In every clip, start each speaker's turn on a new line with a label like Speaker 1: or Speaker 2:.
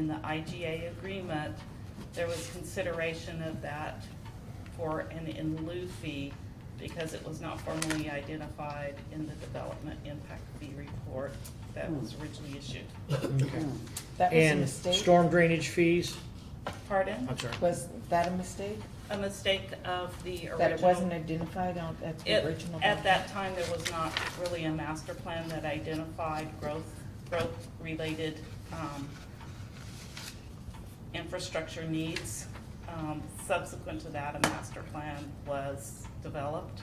Speaker 1: the IGA agreement, there was consideration of that for an in lieu fee because it was not formally identified in the development impact fee report that was
Speaker 2: Hmm.
Speaker 1: originally issued.
Speaker 3: Okay.
Speaker 2: That was a
Speaker 3: And
Speaker 2: mistake?
Speaker 3: storm drainage fees,
Speaker 1: Pardon?
Speaker 3: I'm sorry.
Speaker 2: Was that a mistake?
Speaker 1: A mistake of the original.
Speaker 2: That it wasn't identified on, at the
Speaker 1: It,
Speaker 2: original?
Speaker 1: at
Speaker 2: document?
Speaker 1: that time, there was not really a master plan that identified growth, growth-related, um, infrastructure needs. Um, subsequent to that, a master plan was developed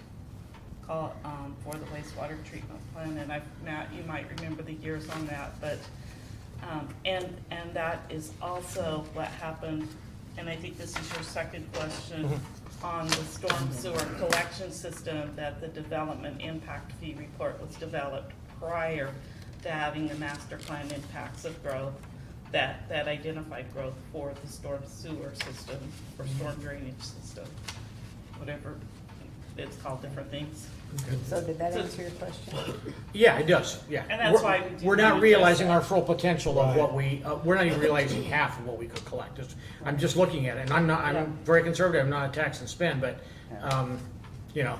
Speaker 1: call, um, for the wastewater treatment plan, and I've, Matt, you might remember the years on that, but, um, and, and that is also what happened, and I think this is your second question, on the storm sewer collection system, that the development impact fee report was developed prior to having the master plan impacts of growth, that, that identified growth for the storm sewer system, or storm drainage system, whatever, it's called different things.
Speaker 2: So did that answer your question?
Speaker 3: Yeah, it does, yeah.
Speaker 1: And that's
Speaker 3: We're-
Speaker 1: why we do uh,
Speaker 3: We're
Speaker 1: need
Speaker 3: not
Speaker 1: to
Speaker 3: realizing
Speaker 1: assess.
Speaker 3: our full potential of what
Speaker 4: Right.
Speaker 3: we, uh, we're not even realizing half of what we could collect. Just- I'm just looking at it, and I'm not, I'm very conservative, I'm not a tax and spend, but, um, you know,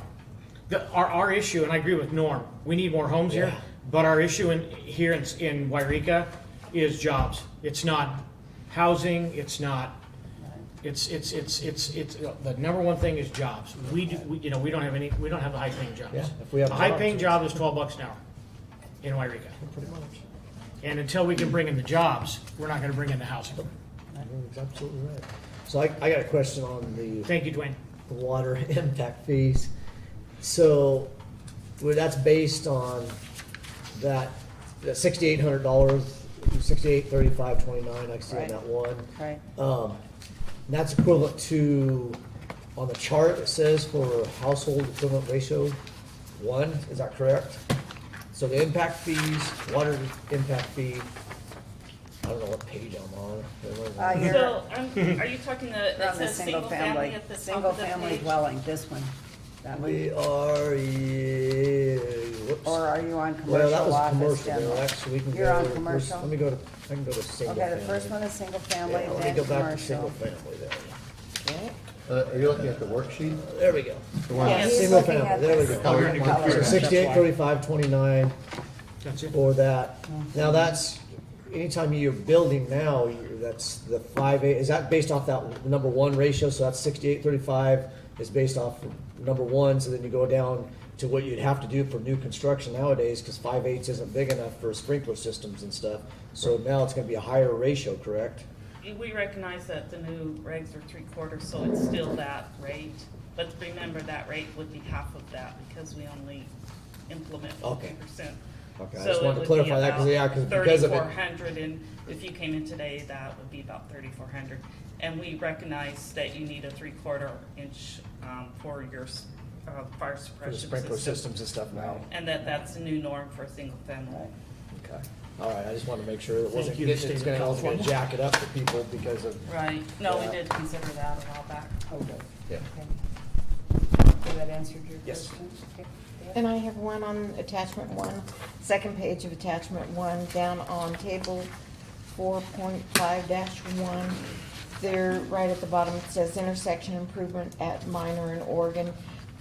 Speaker 3: the, our, our issue, and I agree with Norm, we need more homes here,
Speaker 4: Yeah.
Speaker 3: but our issue in, here in, in Wairika is jobs. It's not housing, it's not It's, it's, it's, it's, it's, the number one thing is jobs. We do, we, you know, we don't have any, we don't have the high paying jobs.
Speaker 4: Yeah, if we have
Speaker 3: A high paying
Speaker 4: jobs,
Speaker 3: job is twelve bucks an hour in Wairika.
Speaker 4: Pretty much.
Speaker 3: And until we can bring in the jobs, we're not gonna bring in the housing.
Speaker 4: You're absolutely right. So I, I got a question on the
Speaker 3: Thank you, Dwayne.
Speaker 4: water impact fees. So, well, that's based on that, that sixty-eight hundred dollars, sixty-eight, thirty-five, twenty-nine, I see on
Speaker 2: Right.
Speaker 4: that one.
Speaker 2: Right.
Speaker 4: Um, and that's equivalent to, on the chart, it says for household equivalent ratio, one, is that correct? So the impact fees, water impact fee, I don't know what page I'm on.
Speaker 5: Uh, you're-
Speaker 1: So, um, are you talking the, it
Speaker 5: From the
Speaker 1: says single family at the top
Speaker 5: Single
Speaker 1: of the
Speaker 5: family
Speaker 1: page?
Speaker 5: dwelling, this one, that
Speaker 4: We
Speaker 5: one.
Speaker 4: are, yeah, whoops.
Speaker 5: Or are you on
Speaker 4: Well, that
Speaker 5: commercial
Speaker 4: was
Speaker 5: office
Speaker 4: commercial,
Speaker 5: general?
Speaker 4: though. actually, we can go.
Speaker 5: You're on
Speaker 4: let's-
Speaker 5: commercial?
Speaker 4: Let me go to, I can go to single family.
Speaker 5: Okay, the first one is single family,
Speaker 4: Yeah, let me
Speaker 5: then
Speaker 4: go back to single
Speaker 5: commercial.
Speaker 4: family there.
Speaker 6: Uh, Are you looking at the worksheet?
Speaker 4: There we go.
Speaker 6: The one-
Speaker 5: Yeah, he's
Speaker 4: Single
Speaker 5: looking
Speaker 4: family,
Speaker 5: at
Speaker 4: there we
Speaker 5: this
Speaker 4: go.
Speaker 6: Oh, you're
Speaker 5: color
Speaker 6: in
Speaker 5: color.
Speaker 4: So sixty-eight, thirty-five, twenty-nine
Speaker 3: That's it.
Speaker 4: for that.
Speaker 3: Mm-hmm.
Speaker 4: Now, that's, anytime you're building now, you- that's the five eight, is that based off that number one ratio? So that's sixty-eight, thirty-five is based off number one, so then you go down to what you'd have to do for new construction nowadays, because five eighths isn't big enough for sprinkler systems and stuff. So now it's gonna be a higher ratio, correct?
Speaker 1: We recognize that the new regs are three quarters, so it's still that rate. But remember, that rate would be half of that because we only implement
Speaker 4: Okay.
Speaker 1: fifty percent.
Speaker 4: Okay, I just wanted to clarify that, 'cause, yeah, 'cause because of it-
Speaker 1: Thirty-four hundred, and if you came in today, that would be about thirty-four hundred. And we recognize that you need a three-quarter inch, um, for your, s- uh, fire
Speaker 4: For the
Speaker 1: suppression
Speaker 4: sprinkler
Speaker 1: system.
Speaker 4: systems and stuff now.
Speaker 1: And that, that's the new norm for a single family.
Speaker 4: Okay, all right, I just wanted to make sure that wasn't,
Speaker 3: Thank you,
Speaker 4: getting- it's
Speaker 3: State of
Speaker 4: gonna, I was gonna
Speaker 3: California.
Speaker 4: jack it up for people because of,
Speaker 1: Right, no, we
Speaker 4: Yeah.
Speaker 1: did consider that a while back.
Speaker 5: Okay.
Speaker 4: yeah.
Speaker 5: Okay. Did that answer your
Speaker 4: Yes.
Speaker 5: question? Okay.
Speaker 2: And I have one on attachment one, second page of attachment one, down on table four point five one. There, right at the bottom, it says intersection improvement at Minor and Oregon.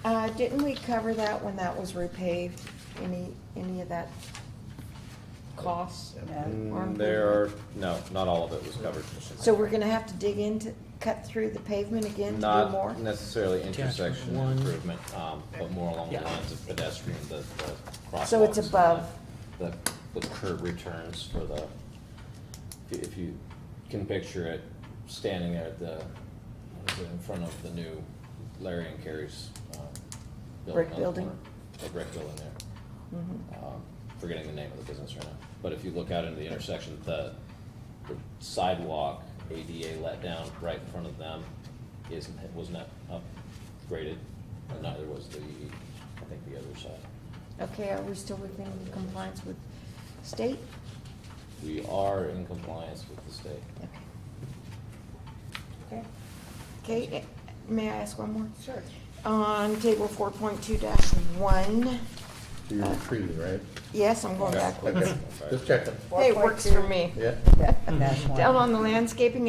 Speaker 2: Uh, didn't we cover that when that was repaved? Any, any of that cost?
Speaker 5: No.
Speaker 2: Or
Speaker 7: Mm, There are, no, not all of it was covered.
Speaker 2: So we're gonna have to dig into, cut through the pavement again to do more?
Speaker 7: Not necessarily intersection
Speaker 3: one.
Speaker 7: improvement, um, but more along the
Speaker 3: Yeah.
Speaker 7: lines of pedestrian, the, the crosswalks.
Speaker 2: So it's
Speaker 7: and
Speaker 2: above.
Speaker 7: The, the curb returns for the, if you- if you can picture it, standing there at the, what is it, in front of the new Larry and Carrie's, um, building.
Speaker 2: Brick
Speaker 7: on the
Speaker 2: building? Mm-hmm.
Speaker 7: corner. The brick building there. Um, Forgetting the name of the business right now, but if you look out into the intersection, the the sidewalk ADA let down right in front of them isn't, was not upgraded, and neither was the, I think, the other side.
Speaker 2: Okay, are we still within compliance with state?
Speaker 7: We are in compliance with the state.
Speaker 2: Okay. Okay. Okay, eh, may I ask one more?
Speaker 5: Sure.
Speaker 2: On table four point two one,
Speaker 6: So you're retrieving, right?
Speaker 2: Yes, I'm going
Speaker 7: Okay,
Speaker 2: backwards.
Speaker 6: Okay, just checking,
Speaker 2: Hey, it works for me.
Speaker 6: yeah.
Speaker 5: Dash one.
Speaker 2: Down on the landscaping